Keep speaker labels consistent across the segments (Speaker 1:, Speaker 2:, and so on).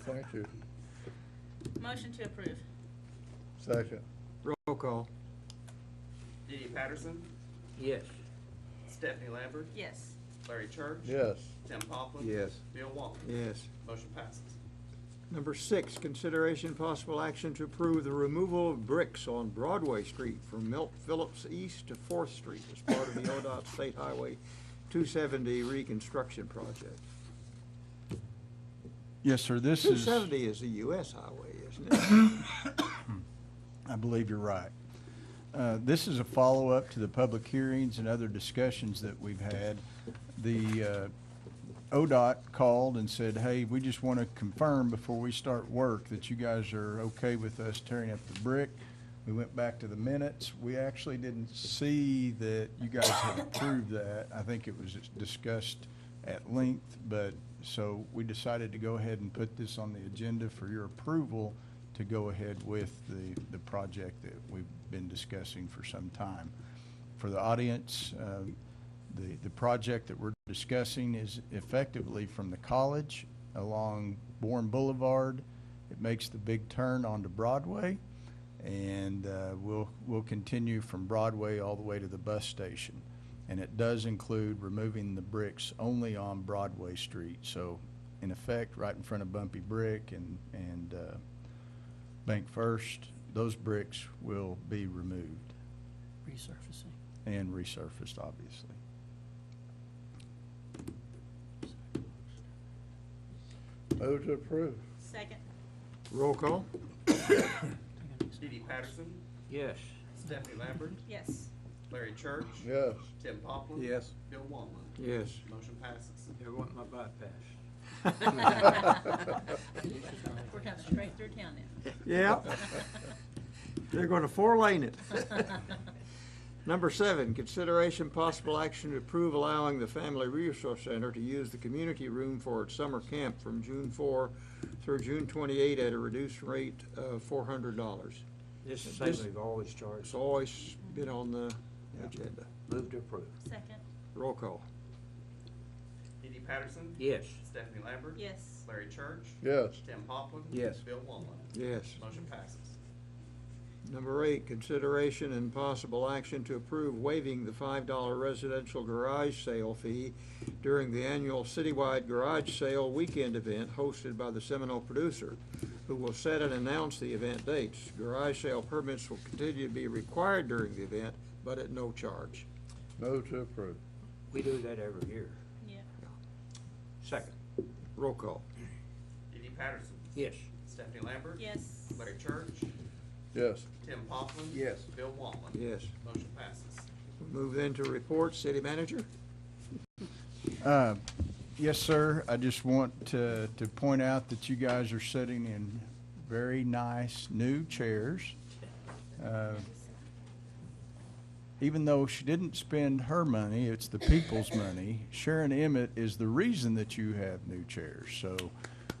Speaker 1: Thank you.
Speaker 2: Motion to approve.
Speaker 1: Second.
Speaker 3: Roll call.
Speaker 4: Diddy Patterson,
Speaker 3: Yes.
Speaker 4: Stephanie Lambert,
Speaker 2: Yes.
Speaker 4: Larry Church.
Speaker 1: Yes.
Speaker 4: Tim Poplin.
Speaker 3: Yes.
Speaker 4: Bill Walton.
Speaker 3: Yes.
Speaker 4: Motion passes.
Speaker 3: Number six, consideration possible action to approve the removal of bricks on Broadway Street from Milt Phillips East to Fourth Street as part of the ODOT State Highway 270 reconstruction project.
Speaker 5: Yes, sir, this is,
Speaker 3: 270 is a US highway, isn't it?
Speaker 5: I believe you're right. Uh, This is a follow-up to the public hearings and other discussions that we've had. The uh, ODOT called and said, hey, we just want to confirm before we start work that you guys are okay with us tearing up the brick. We went back to the minutes. We actually didn't see that you guys had approved that. I think it was discussed at length, but, so we decided to go ahead and put this on the agenda for your approval to go ahead with the, the project that we've been discussing for some time. For the audience, uh, the, the project that we're discussing is effectively from the college along Bourne Boulevard. It makes the big turn onto Broadway, and uh, we'll, we'll continue from Broadway all the way to the bus station. And it does include removing the bricks only on Broadway Street. So in effect, right in front of Bumpy Brick and, and uh, Bank First, those bricks will be removed
Speaker 6: resurfacing.
Speaker 5: and resurfaced, obviously.
Speaker 1: Move to approve.
Speaker 2: Second.
Speaker 3: Roll call.
Speaker 4: Diddy Patterson,
Speaker 3: Yes.
Speaker 4: Stephanie Lambert,
Speaker 2: Yes.
Speaker 4: Larry Church.
Speaker 1: Yes.
Speaker 4: Tim Poplin.
Speaker 3: Yes.
Speaker 4: Bill Walton.
Speaker 3: Yes.
Speaker 4: Motion passes.
Speaker 3: I want my bypass.
Speaker 2: We're coming straight through town
Speaker 3: Yeah, they're going to four-lane it.
Speaker 2: now.
Speaker 3: Number seven, consideration possible action to approve allowing the Family Resource Center to use the community room for its summer camp from June four through June twenty-eight at a reduced rate of four hundred dollars.
Speaker 7: This is
Speaker 3: This-
Speaker 7: something we've always charged.
Speaker 3: It's always been on the agenda.
Speaker 7: Move to approve.
Speaker 2: Second.
Speaker 3: Roll call.
Speaker 4: Diddy Patterson.
Speaker 7: Yes.
Speaker 4: Stephanie Lambert.
Speaker 2: Yes.
Speaker 4: Larry Church.
Speaker 1: Yes.
Speaker 4: Tim Poplin.
Speaker 7: Yes.
Speaker 4: Bill Walton.
Speaker 3: Yes.
Speaker 4: Motion passes.
Speaker 3: Number eight, consideration and possible action to approve waiving the five-dollar residential garage sale fee during the annual citywide garage sale weekend event hosted by the Seminole producer, who will set and announce the event dates. Garage sale permits will continue to be required during the event, but at no charge.
Speaker 1: Move to approve.
Speaker 7: We do that every year.
Speaker 2: Yeah.
Speaker 7: Second.
Speaker 3: Roll call.
Speaker 4: Diddy Patterson,
Speaker 7: Yes.
Speaker 4: Stephanie Lambert.
Speaker 2: Yes.
Speaker 4: Larry Church.
Speaker 1: Yes.
Speaker 4: Tim Poplin.
Speaker 7: Yes.
Speaker 4: Bill Walton.
Speaker 3: Yes.
Speaker 4: Motion passes.
Speaker 3: We Move into report, city manager.
Speaker 5: Uh, Yes, sir. I just want to, to point out that you guys are sitting in very nice new chairs. Uh, Even though she didn't spend her money, it's the people's money. Sharon Emmett is the reason that you have new chairs. So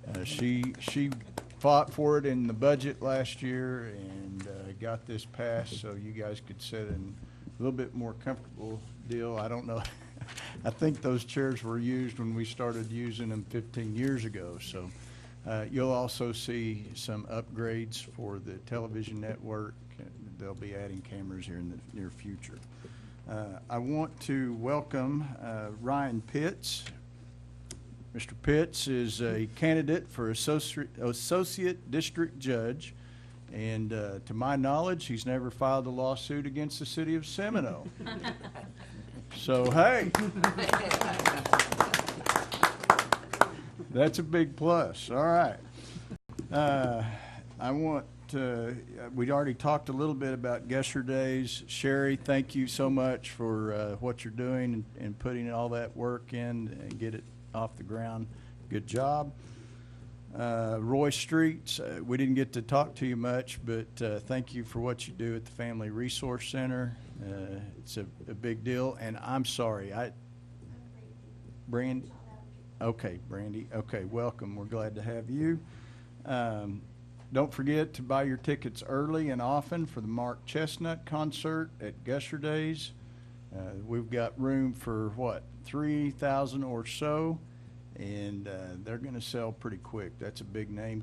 Speaker 5: uh, she, she fought for it in the budget last year and uh, got this passed so you guys could sit in a little bit more comfortable deal. I don't know. I think those chairs were used when we started using them 15 years ago. So uh, you'll also see some upgrades for the television network. They'll be adding cameras here in the near future. Uh, I want to welcome uh, Ryan Pitts. Mr. Pitts is a candidate for associate, associate district judge. And uh, to my knowledge, he's never filed a lawsuit against the city of Seminole. So, hey. That's a big plus. All right. Uh, I want, uh, we'd already talked a little bit about Gusher Days. Sherry, thank you so much for uh, what you're doing and- and putting all that work in and get it off the ground. Good job. Uh, Roy Streets, uh, we didn't get to talk to you much, but uh, thank you for what you do at the Family Resource Center. Uh, It's a a big deal, and I'm sorry, I, Brand, okay, Brandy, okay, welcome, we're glad to have you. Um, Don't forget to buy your tickets early and often for the Mark Chestnut Concert at Gusher Days. Uh, We've got room for, what, 3,000 or so? And uh, they're going to sell pretty quick. That's a big name